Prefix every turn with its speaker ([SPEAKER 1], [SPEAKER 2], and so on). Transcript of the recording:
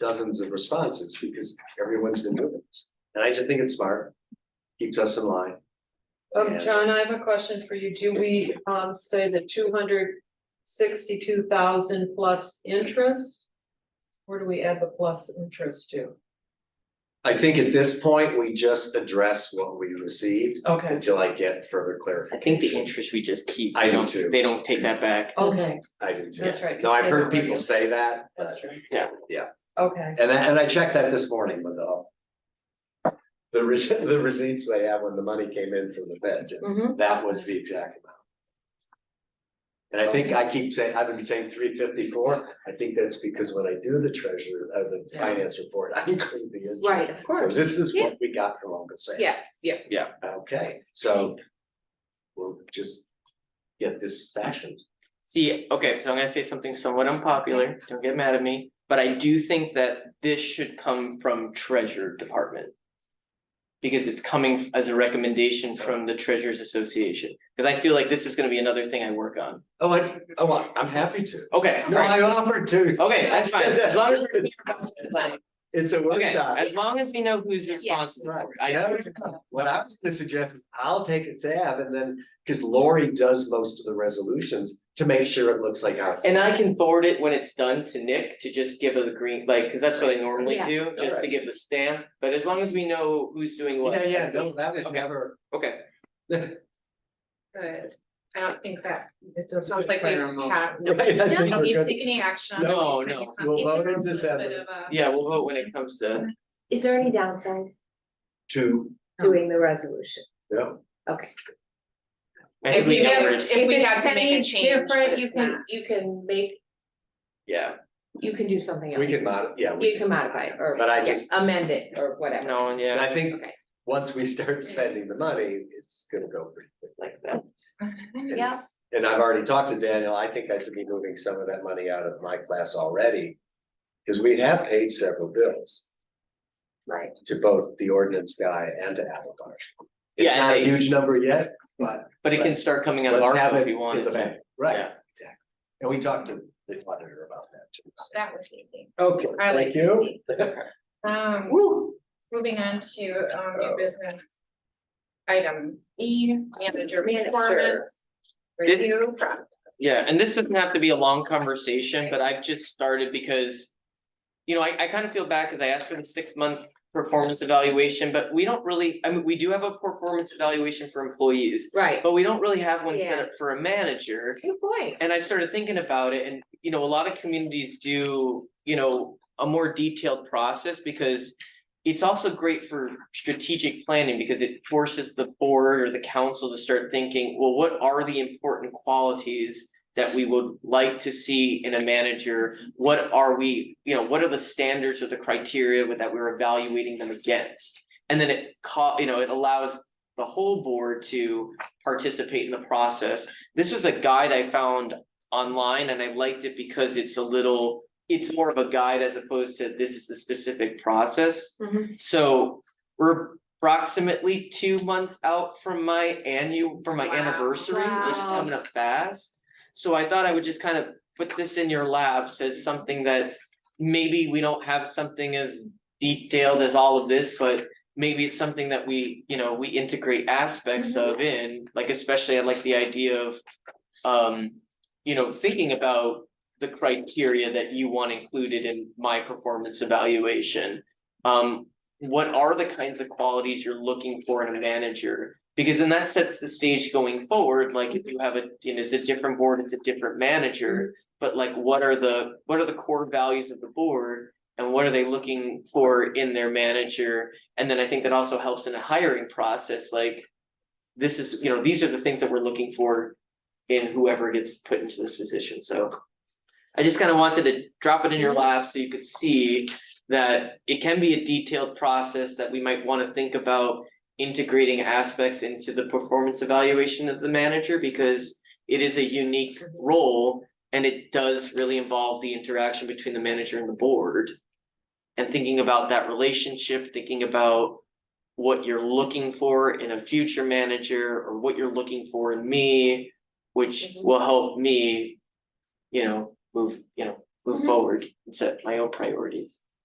[SPEAKER 1] dozens of responses because everyone's been doing this. And I just think it's smart, keeps us in line.
[SPEAKER 2] Um,
[SPEAKER 1] Yeah.
[SPEAKER 2] John, I have a question for you. Do we, um, say the two hundred sixty-two thousand plus interest? Where do we add the plus interest to?
[SPEAKER 1] I think at this point, we just address what we received
[SPEAKER 2] Okay,
[SPEAKER 1] until I get further
[SPEAKER 3] I think the
[SPEAKER 1] clarification.
[SPEAKER 3] interest we just keep,
[SPEAKER 1] I
[SPEAKER 3] they
[SPEAKER 1] do
[SPEAKER 3] don't,
[SPEAKER 1] too.
[SPEAKER 3] they don't take that back.
[SPEAKER 2] okay,
[SPEAKER 1] I do too.
[SPEAKER 2] That's right,
[SPEAKER 1] No, I've heard
[SPEAKER 2] because-
[SPEAKER 1] people say that,
[SPEAKER 2] that's
[SPEAKER 1] but,
[SPEAKER 2] true.
[SPEAKER 3] Yeah.
[SPEAKER 1] Yeah.
[SPEAKER 2] Okay,
[SPEAKER 1] and I, and I checked that this morning with the the rece- the receipts they have when the money came in from the feds, and
[SPEAKER 2] mhm,
[SPEAKER 1] that was the exact amount. And I think I keep saying, I've been saying three fifty-four, I think that's because when I do the treasurer, uh, the
[SPEAKER 2] Yeah.
[SPEAKER 1] finance report, I include the interest.
[SPEAKER 4] Right, of course.
[SPEAKER 1] So this is
[SPEAKER 4] Yeah.
[SPEAKER 1] what we got from Uncle Sam.
[SPEAKER 4] Yeah, yeah,
[SPEAKER 1] Okay, so we'll just get this fashioned.
[SPEAKER 3] See, okay, so I'm gonna say something somewhat unpopular, don't get mad at me, but I do think that this should come from treasure department. Because it's coming as a recommendation from the treasurers association, cause I feel like this is gonna be another thing I work on.
[SPEAKER 1] Oh, I, oh, I- I'm happy to.
[SPEAKER 3] Okay,
[SPEAKER 1] No,
[SPEAKER 3] alright,
[SPEAKER 1] I offered to.
[SPEAKER 3] okay, that's fine, as long as.
[SPEAKER 1] It's-
[SPEAKER 3] we're-
[SPEAKER 1] It's a
[SPEAKER 3] Okay,
[SPEAKER 1] workshop.
[SPEAKER 3] as long as we know who's responsible,
[SPEAKER 1] Right,
[SPEAKER 3] for it.
[SPEAKER 1] I know,
[SPEAKER 3] I,
[SPEAKER 1] it's not. what I was gonna suggest, is I'll take a tab and then, cause Lori does most of the resolutions to make sure it looks like our.
[SPEAKER 3] and I can forward it when it's done to Nick to just give her the green, like, cause that's what I normally
[SPEAKER 4] Yeah.
[SPEAKER 3] do, just to
[SPEAKER 1] Alright.
[SPEAKER 3] give the stamp, but as long as we know who's doing what.
[SPEAKER 1] Yeah, yeah, no, that was
[SPEAKER 3] Okay.
[SPEAKER 1] never,
[SPEAKER 3] Okay,
[SPEAKER 4] good. I don't think that,
[SPEAKER 2] it does.
[SPEAKER 4] sounds like we have, no,
[SPEAKER 1] right, I
[SPEAKER 4] we
[SPEAKER 1] think
[SPEAKER 4] don't need
[SPEAKER 1] we're
[SPEAKER 4] to
[SPEAKER 1] good.
[SPEAKER 4] take any action on it.
[SPEAKER 3] No, no.
[SPEAKER 4] It's a
[SPEAKER 1] We'll vote in
[SPEAKER 4] little bit
[SPEAKER 1] December.
[SPEAKER 4] of a-
[SPEAKER 3] yeah, we'll vote when it comes to,
[SPEAKER 5] Is there any downside
[SPEAKER 1] two,
[SPEAKER 5] doing the resolution?
[SPEAKER 1] no,
[SPEAKER 3] I
[SPEAKER 4] If
[SPEAKER 3] think we
[SPEAKER 4] you
[SPEAKER 3] know
[SPEAKER 4] have-
[SPEAKER 3] where it's,
[SPEAKER 4] if- we had to make a
[SPEAKER 5] If it's
[SPEAKER 4] change, but
[SPEAKER 5] Different, you
[SPEAKER 4] it's
[SPEAKER 5] can,
[SPEAKER 4] not.
[SPEAKER 5] you can make,
[SPEAKER 3] yeah,
[SPEAKER 5] you can do something
[SPEAKER 1] we
[SPEAKER 5] else,
[SPEAKER 1] can mod, yeah, we
[SPEAKER 5] you
[SPEAKER 1] can,
[SPEAKER 5] can modify it or
[SPEAKER 1] but I
[SPEAKER 5] yeah,
[SPEAKER 1] just,
[SPEAKER 5] amend it or whatever.
[SPEAKER 3] no, and
[SPEAKER 1] and
[SPEAKER 3] yeah,
[SPEAKER 1] I think,
[SPEAKER 5] Okay.
[SPEAKER 1] once we start spending the money, it's gonna go pretty quick like that. And-
[SPEAKER 4] Yes.
[SPEAKER 1] And I've already talked to Daniel, I think I should be moving some of that money out of my class already, cause we have paid several bills.
[SPEAKER 5] Right.
[SPEAKER 1] to both the ordinance guy and to Avatar. It's
[SPEAKER 3] Yeah, and
[SPEAKER 1] not a
[SPEAKER 3] they-
[SPEAKER 1] huge number yet,
[SPEAKER 3] but it can start coming out of
[SPEAKER 1] let's
[SPEAKER 3] our
[SPEAKER 1] have
[SPEAKER 3] if
[SPEAKER 1] it
[SPEAKER 3] we
[SPEAKER 1] in
[SPEAKER 3] wanted
[SPEAKER 1] the
[SPEAKER 3] to,
[SPEAKER 1] bank, right,
[SPEAKER 3] yeah,
[SPEAKER 1] and we talked to the auditor about that too. so.
[SPEAKER 4] That was easy.
[SPEAKER 1] Okay,
[SPEAKER 4] I like
[SPEAKER 1] thank you.
[SPEAKER 4] easy. Um,
[SPEAKER 1] Woo. Oh.
[SPEAKER 4] moving on to, um, new business. Item E, manager
[SPEAKER 5] Manager.
[SPEAKER 4] performance.
[SPEAKER 3] This-
[SPEAKER 4] Review process.
[SPEAKER 3] yeah, and this doesn't have to be a long conversation, but I've just started because. You know, I I kind of feel bad, cause I asked for the six month performance evaluation, but we don't really, I mean, we do have a performance evaluation for employees.
[SPEAKER 5] Right,
[SPEAKER 3] But we don't really have one set
[SPEAKER 5] Yeah.
[SPEAKER 3] up for a manager,
[SPEAKER 5] good point.
[SPEAKER 3] And I started thinking about it and, you know, a lot of communities do, you know, a more detailed process because. It's also great for strategic planning because it forces the board or the council to start thinking, well, what are the important qualities? That we would like to see in a manager, what are we, you know, what are the standards or the criteria with that we're evaluating them against? And then it ca- you know, it allows the whole board to participate in the process this was a guide I found online and I liked it because it's a little, it's more of a guide as opposed to this is the specific process.
[SPEAKER 5] Mhm.
[SPEAKER 3] So we're approximately two months out from my annual, from my
[SPEAKER 4] Wow.
[SPEAKER 3] anniversary, which is
[SPEAKER 5] Wow.
[SPEAKER 3] coming up fast. So I thought I would just kind of put this in your laps as something that maybe we don't have something as detailed as all of this, but maybe it's something that we, you know, we integrate aspects of in, like especially I like the idea of um, you know, thinking about the criteria that you want included in my performance evaluation. Um, what are the kinds of qualities you're looking for in a manager? Because then that sets the stage going forward, like if you have a, you know, it's a different board, it's a different manager. But like, what are the, what are the core values of the board? And what are they looking for in their manager? And then I think that also helps in the hiring process, like. This is, you know, these are the things that we're looking for in whoever gets put into this position, so. I just kind of wanted to drop it in your lap so you could see that it can be a detailed process that we might want to think about. Integrating aspects into the performance evaluation of the manager because it is a unique role. And it does really involve the interaction between the manager and the board. And thinking about that relationship, thinking about what you're looking for in a future manager or what you're looking for in me which
[SPEAKER 5] Mhm.
[SPEAKER 3] will help me, you know, move, you know, move
[SPEAKER 5] Mhm.
[SPEAKER 3] forward and set my own priorities.